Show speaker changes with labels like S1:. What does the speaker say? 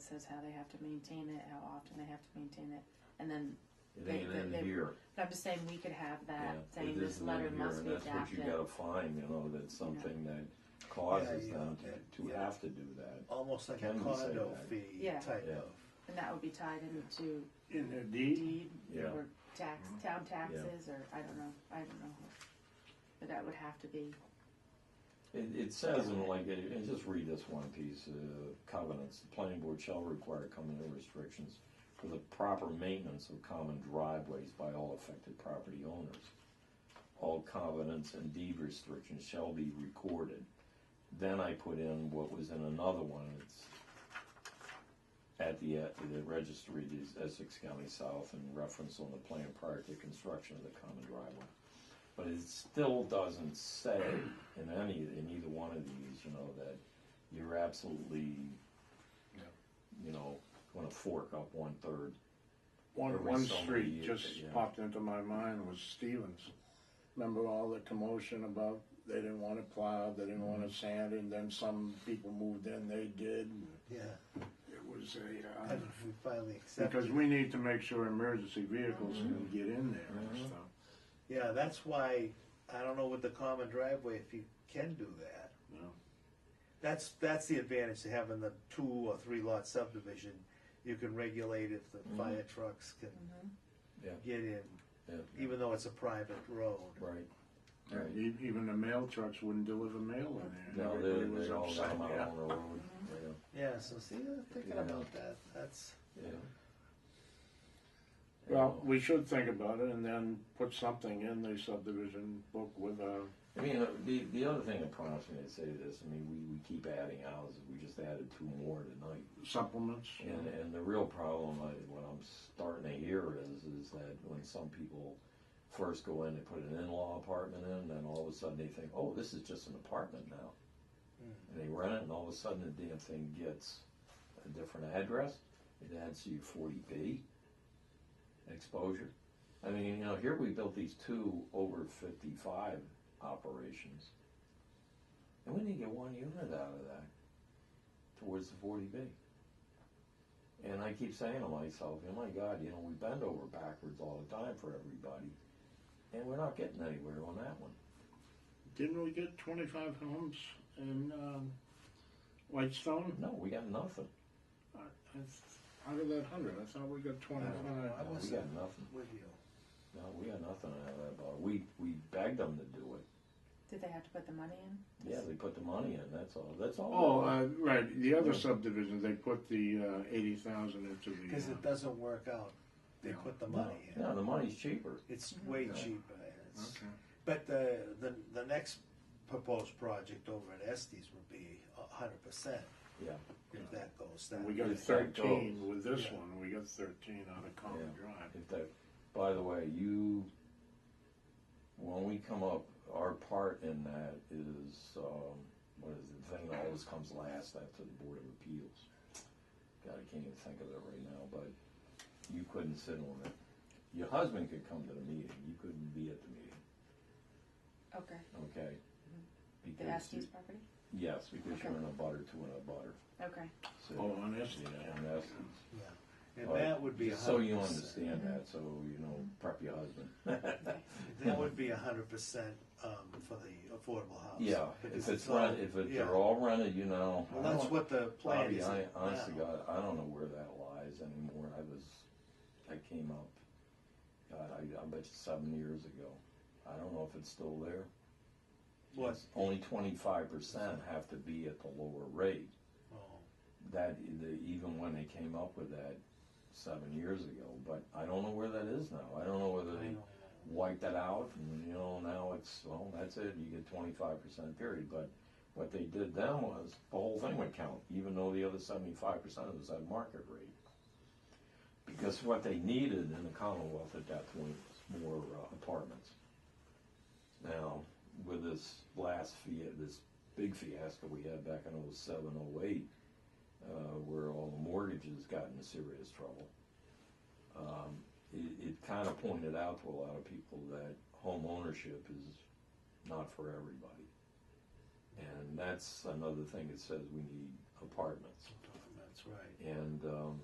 S1: says how they have to maintain it, how often they have to maintain it, and then,
S2: It ain't
S1: They-
S2: in
S1: they-
S2: here.
S1: but I'm just saying we could have
S2: Yeah,
S1: that
S2: it
S1: saying this
S2: isn't in
S1: letter
S2: here,
S1: must
S2: and
S1: be
S2: That's what
S1: adapted.
S2: you gotta find, you know, that's something that causes
S3: Yeah,
S2: them
S3: yeah,
S2: to, to
S3: yeah.
S2: have to do that.
S3: almost like a
S2: Can we say
S3: condo
S2: that?
S3: fee
S1: Yeah.
S3: type
S2: Yeah.
S3: of.
S1: And that would be tied into
S4: in their deed.
S1: deed
S2: Yeah.
S1: or tax, town taxes, or I don't know, I don't know. But that would have to be,
S2: It, it says in like, it- and just read this one piece, uh, covenants, the planning board shall require covenant restrictions for the proper maintenance of common driveways by all affected property owners. All covenants and deed restrictions shall be recorded. Then I put in what was in another one, it's at the, uh, the registry, is Essex County South, and reference on the plan prior to construction of the common driveway. But it still doesn't say in any, in either one of these, you know, that you're absolutely,
S4: Yeah.
S2: you know, gonna fork up one-third.
S4: One,
S2: Every
S4: one
S2: so many
S4: street
S2: years,
S4: just
S2: yeah.
S4: popped into my mind was Stevens. Remember all the commotion about they didn't want to plow, they didn't want to
S2: Mm-hmm.
S4: sand, and then some people moved in, they did.
S3: Yeah,
S4: It was a,
S3: I
S4: uh,
S3: don't know if we finally accept
S4: because
S3: it.
S4: we need to make sure emergency vehicles can get in there and
S2: Mhm.
S4: stuff.
S3: Yeah, that's why, I don't know with the common driveway, if you can do that.
S4: you know.
S3: That's, that's the advantage to having the two or three lot subdivision. You can regulate if the fire trucks can
S2: Mm-hmm. Yeah.
S3: get in,
S2: Yeah,
S3: even though it's a private road.
S2: right. Right.
S4: E- Even the mail trucks wouldn't deliver mail in there.
S2: No,
S4: and
S2: they,
S4: everybody was
S2: they all got
S4: upset,
S2: 'em out
S4: yeah.
S2: on the road, yeah.
S3: Yeah, so see, I'm thinking
S2: Yeah.
S3: about that, that's,
S2: Yeah. uh,
S4: Well, we should think about it and then put something in the subdivision book with a,
S2: I mean, uh, the, the other thing that prompts me to say this, I mean, we, we keep adding houses, we just added two more tonight.
S4: supplements.
S2: And, and the real problem, I, what I'm starting to hear is, is that when some people first go in, they put an in-law apartment in, then all of a sudden they think, oh, this is just an apartment now. And they rent it, and all of a sudden the damn thing gets a different address, it adds to your forty B exposure. I mean, you know, here we built these two over fifty-five operations, and we didn't get one unit out of that towards the forty B. And I keep saying to myself, oh my God, you know, we bend over backwards all the time for everybody, and we're not getting anywhere on that one.
S4: Didn't we get twenty-five homes in, um, Whitestone?
S2: No, we got nothing.
S4: I- I- Out of that hundred, I thought we got
S3: I
S4: twenty-five.
S2: No, we
S3: wasn't
S2: got
S4: uh,
S2: nothing.
S3: with you.
S2: No, we got nothing out of that bar. We, we begged them to do it.
S1: did they have to put the money in?
S2: Yeah, they put the money in, that's all, that's all.
S4: Oh, uh, right, the other subdivision, they put the, uh, eighty thousand into the.
S3: Cause
S4: uh,
S3: it doesn't work out, they put the
S2: No,
S3: money in,
S2: no, the money's cheaper.
S3: it's way
S2: Yeah.
S3: cheaper, it's.
S4: uh, Okay.
S3: But the, the, the next proposed project over at Estes would be a hundred percent
S2: Yeah,
S3: if that goes
S4: And
S3: down.
S4: we got
S2: If that
S4: thirteen
S2: goes.
S4: with this
S3: Yeah.
S4: one, we got thirteen out of Common Drive.
S2: if that, by the way, you, when we come up, our part in that is, um, what is it, the thing that always comes last after the Board of Appeals. God, I can't even think of it right now, but you couldn't sit on it. Your husband could come to the meeting, you couldn't be at the meeting,
S1: Okay,
S2: okay?
S1: the
S2: Because you-
S1: Estes property?
S2: Yes, because you're in a butter to in a butter.
S1: Okay,
S2: So,
S4: Oh, on this?
S2: Yeah, and that's.
S3: And that would be a
S2: Just So you
S3: hundred percent,
S2: understand that, so you know, prep your husband.
S3: that would be a hundred percent, um, for the affordable house.
S2: Yeah,
S3: because
S2: if it's
S3: all-
S2: rented, if it-
S3: yeah.
S2: they're all rented, you know.
S3: Well,
S2: I
S3: that's
S2: don't-
S3: what the plan
S2: Bobby,
S3: is
S2: I,
S3: now.
S2: honest to God, I don't know where that lies anymore. I was, I came up, God, I, I bet you seven years ago. I don't know if it's still there.
S3: What,
S2: It's Only twenty-five percent have to be at the lower rate.
S3: oh,
S2: that the, even when they came up with that seven years ago, but I don't know where that is now. I don't know whether
S3: I
S2: they
S3: don't know.
S2: wiped that out and you know now it's well that's it. You get twenty five percent period. But what they did then was the whole thing would count, even though the other seventy five percent was at market rate. Because what they needed in the Commonwealth at that point was more uh, apartments. Now, with this last fia- this big fiasco we had back in 07, 08, uh, where all the mortgages got into serious trouble. Um, it, it kind of pointed out to a lot of people that home ownership is not for everybody. And that's another thing that says we need apartments.
S3: apartments, That's right.
S2: and, um,